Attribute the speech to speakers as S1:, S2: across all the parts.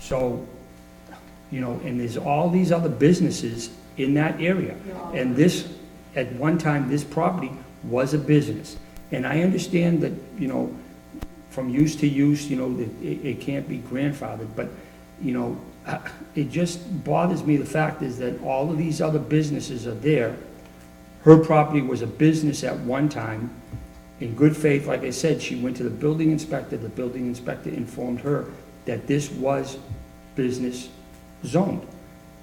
S1: So, you know, and there's all these other businesses in that area. And this, at one time, this property was a business. And I understand that, you know, from use to use, you know, that it, it can't be grandfathered, but, you know, uh, it just bothers me, the fact is that all of these other businesses are there. Her property was a business at one time. In good faith, like I said, she went to the building inspector, the building inspector informed her that this was business zoned.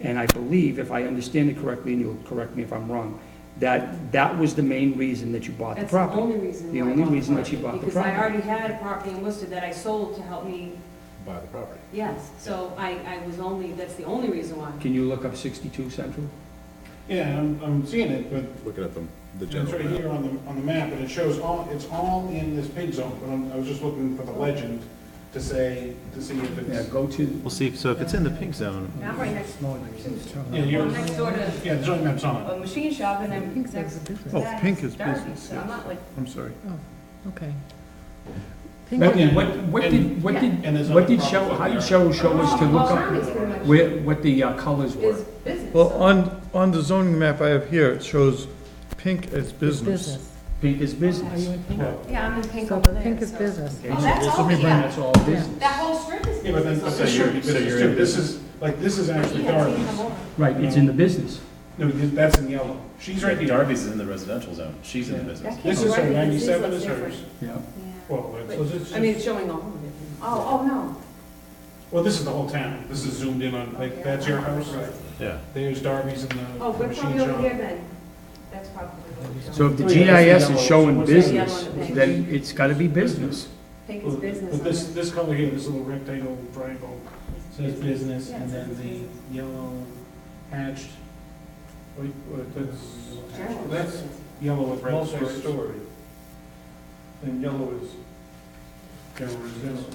S1: And I believe, if I understand it correctly, and you'll correct me if I'm wrong, that that was the main reason that you bought the
S2: That's the
S1: property.
S2: only reason.
S1: The
S2: why I
S1: only
S2: bought the
S1: reason that she
S2: property,
S1: bought the
S2: Because I
S1: property.
S2: already had a property in Worcester that I sold to help me,
S3: buy the property.
S2: yes, so I, I was only, that's the only reason why.
S1: Can you look up 62 Central?
S4: Yeah, I'm, I'm seeing it, but
S3: Looking at the, the
S4: it's
S3: general
S4: right
S3: map.
S4: here on the, on the map, and it shows all, it's all in this pig zone, but I'm- I was just looking for the legend to say, to see if
S1: Yeah,
S4: it's,
S1: go to,
S5: We'll see, so if it's in the pink zone,
S6: Not right next,
S4: yeah,
S6: well,
S4: yours,
S6: next door to
S4: yeah, the zoning map's on
S6: a machine shop and I'm next to
S5: Oh, pink is
S6: Darby's,
S5: business,
S6: So I'm not like,
S5: I'm sorry.
S7: Okay.
S4: That- yeah.
S1: what, what did, what
S4: it.
S1: did,
S4: And there's
S1: what did
S4: other
S1: show,
S4: properties
S1: how
S4: there.
S1: did show, show us to look
S6: Well,
S1: up
S6: pretty much
S1: where, what the uh, colors were?
S6: is business.
S5: Well,
S6: so-
S5: on, on the zoning map I have here, it shows pink as business.
S1: Pink is
S7: Are
S1: business.
S7: you in pink?
S4: Well,
S6: Yeah, I'm in pink
S7: So
S6: over there.
S7: pink is
S6: so-
S7: business.
S1: Okay,
S6: Oh,
S1: so
S6: that's
S1: this-
S6: all, yeah.
S1: That's all business.
S6: That whole strip is business.
S4: Yeah, but then, but
S6: so-
S4: then you're,
S3: so you're
S4: business
S3: in
S4: too. this is, like, this is actually
S6: Yeah, taking them
S4: Darby's.
S6: over.
S1: Right, it's in the business.
S4: No, th- that's in yellow. She's right here.
S8: Darby's is in the residential zone, she's in the business.
S6: That
S4: This
S6: can't
S4: is
S6: be
S4: her,
S6: Oh, right, because these
S4: ninety-seven
S6: look
S4: is
S6: different.
S4: hers.
S1: Yeah.
S6: Yeah.
S4: Well, it's-
S6: But-
S4: so this-
S2: I mean, it's showing all of it.
S6: Oh, oh, no.
S4: well, this is the whole town. This is zoomed in on, like, that's your house.
S8: Yeah.
S4: There's Darby's and
S6: Oh,
S4: the
S6: we're
S4: machine
S6: probably over here
S4: shop.
S6: then. That's probably. what we're
S1: So
S6: doing.
S1: if the
S4: Oh, yeah, that's
S1: GIS
S4: the
S1: is
S4: yellow.
S1: showing
S4: What's that?
S1: business,
S6: Yellow.
S1: then it's gotta be business.
S6: Pink is
S4: Well,
S6: business.
S4: But
S6: on
S4: this,
S6: there.
S4: this color here, this little rectangle triangle, says business,
S6: Yeah,
S4: and
S6: it says
S4: then
S6: business.
S4: the yellow hatched, what do you- what-
S6: General
S4: that's, that's
S6: business.
S4: yellow with red stripes.
S3: Multi-story.
S4: And yellow is general residential.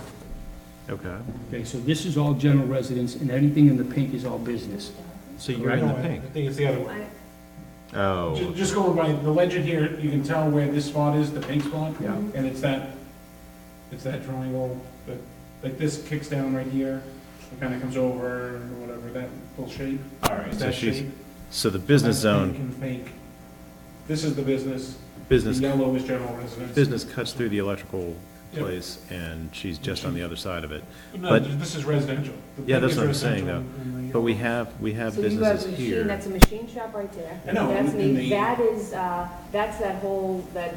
S5: Okay,
S1: Okay, so this is all general residence, and anything in the pink is all business.
S5: so you're in the
S4: No, I-
S5: pink.
S4: I think it's the other one.
S6: I-
S4: Ju-
S5: Oh,
S4: Just going by the legend here, you can tell where this spot is, the pink spot.
S1: Yeah.
S6: Mm-hmm.
S4: And it's that, it's that triangle, but, like, this kicks down right here, it kinda comes over, or whatever, that little shape.
S8: All right,
S4: It's
S8: so
S4: that
S8: she's,
S4: shape.
S5: so the business zone,
S4: Pink and fake. This is the business, the
S5: business,
S4: yellow is general residence.
S5: business cuts through the electrical
S4: Yep.
S5: place, and she's just on the other side of it.
S4: No,
S5: but-
S4: this is residential. The
S5: Yeah, that's
S4: pink
S5: what I'm
S4: is
S5: saying,
S4: residential and the-
S5: But we have, we have
S2: So you got
S5: businesses
S2: a machine,
S5: here.
S2: that's a machine shop right there.
S4: I know,
S2: That's
S4: and- and
S2: me,
S4: the-
S2: that is, uh, that's that whole, that,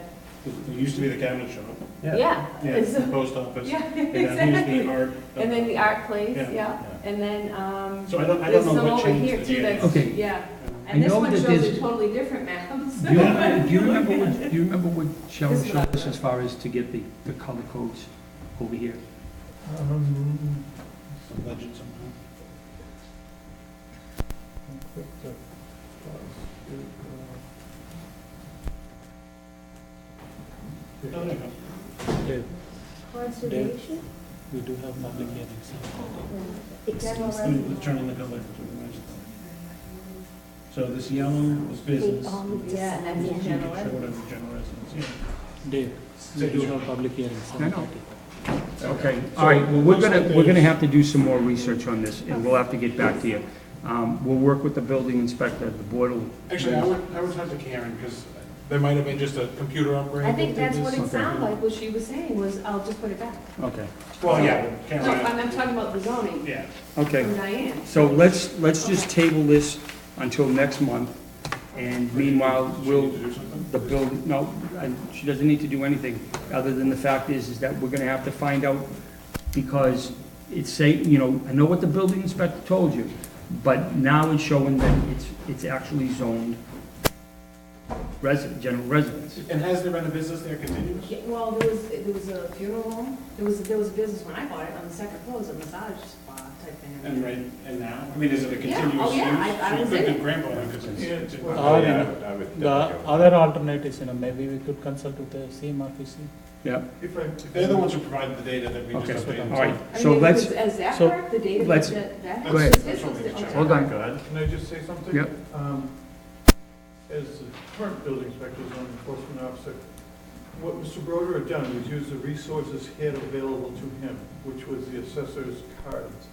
S4: There used to be the cabinet shop,
S2: yeah.
S4: yeah,
S2: it's-
S4: the post office.
S2: Yeah,
S4: and then here's the
S2: exactly.
S4: art-
S2: And then the art place,
S4: Yeah.
S2: yeah, and then, um,
S4: So I don't, I
S2: there's
S4: don't
S2: some
S4: know what
S2: over
S4: changed
S2: here
S4: the
S2: too,
S4: DNA.
S2: that's,
S1: Okay.
S2: yeah.
S1: I
S2: And this
S1: know
S2: one
S1: that
S2: shows
S1: there's-
S2: a totally different map.
S1: Do you, do you remember what, do you remember what Cheryl showed us as far as to get the, the color codes over here?
S4: Um, Some legend somehow. No, no, no.
S2: Conservation?
S4: We do have public hearings.
S2: General
S4: Let me turn on the color. So this yellow is business.
S2: Yeah, and
S4: You
S2: that's
S4: can
S2: general.
S4: show it under general residence, yeah.
S1: Dave,
S4: So you have
S1: public hearings. I know. Okay, all right, well, we're gonna, we're gonna have to do some more research on this, and we'll have to get back to you. Um, we'll work with the building inspector, the board will.
S4: Actually, I would, I would talk to Karen, because there might have been just a computer upgrade.
S2: I think
S4: that
S2: that's
S4: did
S2: what
S4: this.
S2: it sounded like, what she was saying was, I'll just put it back.
S1: Okay.
S4: Well, yeah,
S2: No,
S4: Karen,
S2: I'm, I'm talking about the zoning
S4: yeah.
S1: Okay,
S2: from Diane.
S1: so let's, let's just table this until next month, and meanwhile, we'll,
S4: Need to do something?
S1: the building, no, I- she doesn't need to do anything, other than the fact is, is that we're gonna have to find out, because it's say, you know, I know what the building inspector told you, but now it's showing that it's, it's actually zoned resident, general residence.
S4: And has there been a business there continuous?
S2: Yeah, Well, there was, there was a funeral home, there was, there was a business when I bought it, on the second floor, it was a massage spa type thing.
S4: And right, and now, I mean, is it a
S2: Yeah,
S4: continuous use?
S2: oh, yeah, I- I
S4: So you
S2: was
S4: think
S2: in
S4: the grandfather could say, yeah, it's a-
S8: Oh, yeah, I would- I would
S9: The
S8: definitely go.
S9: other alternate is, you know, maybe we could consult with the CMRPC.
S1: Yeah,
S4: If I- if They're the ones who provided the data that we
S1: okay,
S4: just updated.
S1: all right,
S2: I
S1: so
S2: mean,
S1: let's,
S2: because as that
S1: so
S2: part, the data,
S1: let's-
S2: that, that.
S1: go ahead.
S2: this was the- okay.
S1: hold on,
S3: Go ahead.
S4: Can I just say something?
S1: Yep.
S4: Um, As the current building inspector, zoning enforcement officer, what Mr. Broder had done was use the resources he had available to him, which was the assessor's cards.